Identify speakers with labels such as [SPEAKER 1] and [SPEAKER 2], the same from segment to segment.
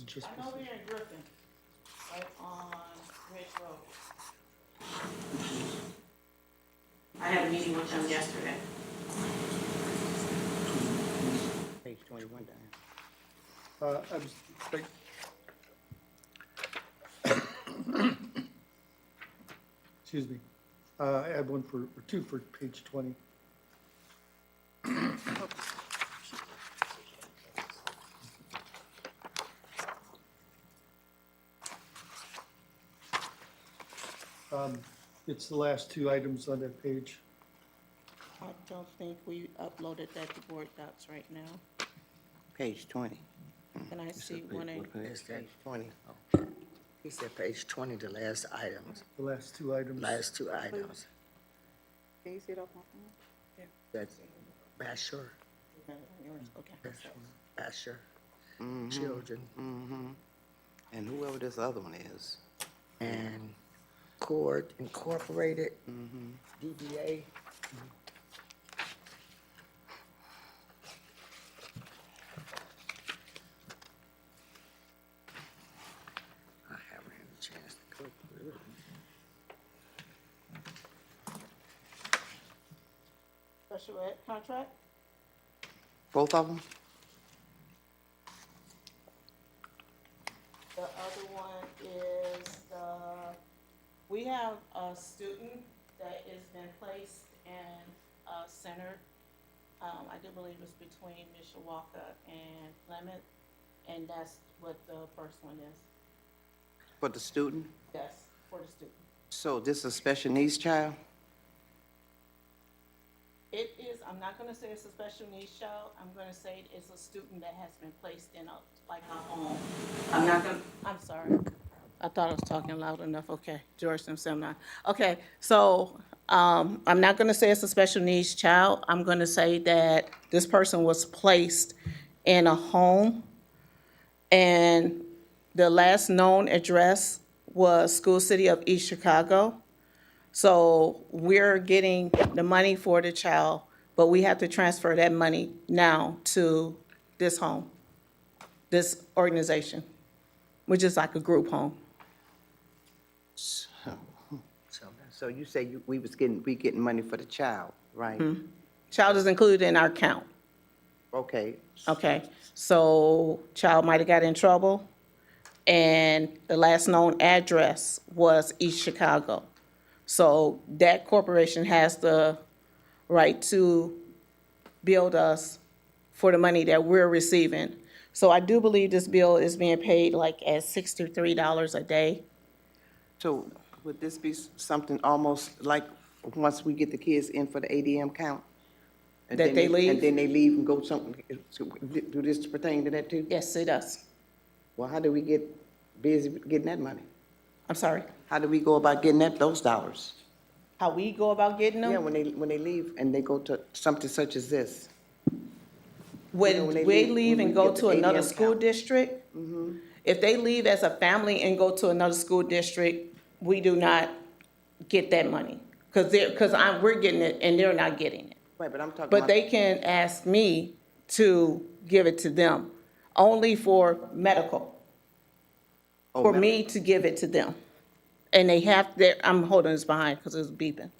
[SPEAKER 1] It's just
[SPEAKER 2] I know we're in Griffin, right on Ridge Road. I had a meeting with them yesterday.
[SPEAKER 1] page twenty-one, Diane. Uh, I was, like, excuse me, uh, I had one for, or two for page twenty. Um, it's the last two items on that page.
[SPEAKER 2] I don't think we uploaded that to Board Docs right now.
[SPEAKER 3] Page twenty.
[SPEAKER 2] Can I see one and,
[SPEAKER 4] Is that-
[SPEAKER 3] Page twenty.
[SPEAKER 4] He said page twenty, the last items,
[SPEAKER 1] The last two items.
[SPEAKER 4] last two items.
[SPEAKER 5] Can you see it off my phone?
[SPEAKER 4] That's Basher,
[SPEAKER 2] no, yours, okay.
[SPEAKER 4] Basher, children,
[SPEAKER 3] Mm-hmm. And whoever this other one is. Mm-hmm.
[SPEAKER 4] and Cord Incorporated,
[SPEAKER 3] Mm-hmm.
[SPEAKER 4] DBA. I haven't had a chance to go through it.
[SPEAKER 2] Special ed contract?
[SPEAKER 3] Both of them?
[SPEAKER 2] The other one is the, we have a student that has been placed in a center. Um, I do believe it's between Mishawaka and Clement, and that's what the first one is.
[SPEAKER 3] For the student?
[SPEAKER 2] Yes, for the student.
[SPEAKER 3] So this is a special needs child?
[SPEAKER 2] It is, I'm not gonna say it's a special needs child, I'm gonna say it's a student that has been placed in a, like a home. I'm not gonna, I'm sorry. I thought I was talking loud enough, okay, George Simon. Okay, so, um, I'm not gonna say it's a special needs child, I'm gonna say that this person was placed in a home. And the last known address was School City of East Chicago. So we're getting the money for the child, but we have to transfer that money now to this home, this organization, which is like a group home.
[SPEAKER 3] So you say you, we was getting, we getting money for the child, right?
[SPEAKER 2] Hmm. Child is included in our count,
[SPEAKER 3] Okay.
[SPEAKER 2] okay? So child might have got in trouble, and the last known address was East Chicago. So that corporation has the right to build us for the money that we're receiving. So I do believe this bill is being paid like at sixty-three dollars a day.
[SPEAKER 3] So would this be s- something almost like, once we get the kids in for the ADM count? and
[SPEAKER 2] That
[SPEAKER 3] then
[SPEAKER 2] they leave?
[SPEAKER 3] And then they leave and go some, do this pertain to that too?
[SPEAKER 2] Yes, it does.
[SPEAKER 3] Well, how do we get busy getting that money?
[SPEAKER 2] I'm sorry.
[SPEAKER 3] How do we go about getting that, those dollars?
[SPEAKER 2] How we go about getting
[SPEAKER 3] Yeah,
[SPEAKER 2] them?
[SPEAKER 3] when they, when they leave and they go to something such as this.
[SPEAKER 2] When
[SPEAKER 3] know, when they
[SPEAKER 2] we
[SPEAKER 3] leave-
[SPEAKER 2] leave
[SPEAKER 3] when
[SPEAKER 2] and
[SPEAKER 3] we
[SPEAKER 2] go
[SPEAKER 3] get
[SPEAKER 2] to
[SPEAKER 3] the
[SPEAKER 2] another
[SPEAKER 3] ADM
[SPEAKER 2] school
[SPEAKER 3] count.
[SPEAKER 2] district,
[SPEAKER 3] Mm-hmm.
[SPEAKER 2] if they leave as a family and go to another school district, we do not get that money. Cause they're, cause I'm, we're getting it and they're not getting it.
[SPEAKER 3] Right, but I'm talking
[SPEAKER 2] But
[SPEAKER 3] about,
[SPEAKER 2] they can ask me to give it to them, only for medical,
[SPEAKER 3] Oh,
[SPEAKER 2] for
[SPEAKER 3] ma'am.
[SPEAKER 2] me to give it to them. And they have, their I'm holding this behind because it's beeping.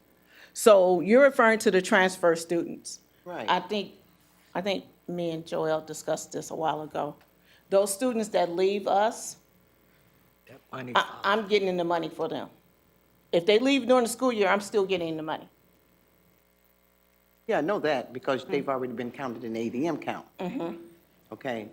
[SPEAKER 2] So you're referring to the transfer students.
[SPEAKER 3] Right.
[SPEAKER 2] I think, I think me and Joel discussed this a while ago. Those students that leave us,
[SPEAKER 4] That money,
[SPEAKER 2] I, I'm getting the money for them. If they leave during the school year, I'm still getting the money.
[SPEAKER 3] yeah, I know that,
[SPEAKER 2] Mm.
[SPEAKER 3] because they've already been counted in the ADM count.
[SPEAKER 2] Mm-hmm.
[SPEAKER 3] Okay.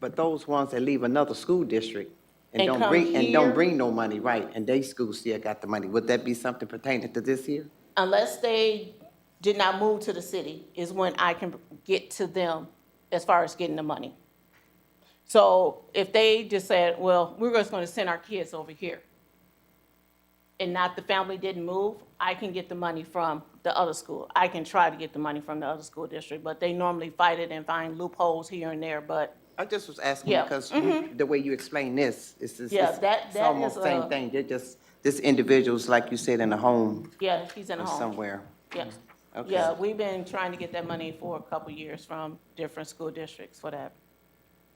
[SPEAKER 3] But those ones that leave another school district and
[SPEAKER 2] And
[SPEAKER 3] don't
[SPEAKER 2] come
[SPEAKER 3] bring, and don't
[SPEAKER 2] here.
[SPEAKER 3] bring no money, right, and they school still got the money, would that be something pertaining to this year?
[SPEAKER 2] unless they did not move to the city, is when I can get to them as far as getting the money. So if they just said, well, we're just gonna send our kids over here, and not the family didn't move, I can get the money from the other school. I can try to get the money from the other school district, but they normally fight it and find loopholes here and there, but
[SPEAKER 3] I just was asking
[SPEAKER 2] Yeah, Mm-hmm.
[SPEAKER 3] because the way you explain this, it's, it's,
[SPEAKER 2] Yeah,
[SPEAKER 3] it's
[SPEAKER 2] that-
[SPEAKER 3] it's
[SPEAKER 2] that
[SPEAKER 3] almost
[SPEAKER 2] is
[SPEAKER 3] same
[SPEAKER 2] a-
[SPEAKER 3] thing. They're just, this individual's, like you said, in a home
[SPEAKER 2] yeah, he's in a
[SPEAKER 3] or
[SPEAKER 2] home.
[SPEAKER 3] somewhere.
[SPEAKER 2] Yeah,
[SPEAKER 3] Okay.
[SPEAKER 2] yeah, we've been trying to get that money for a couple years from different school districts for that.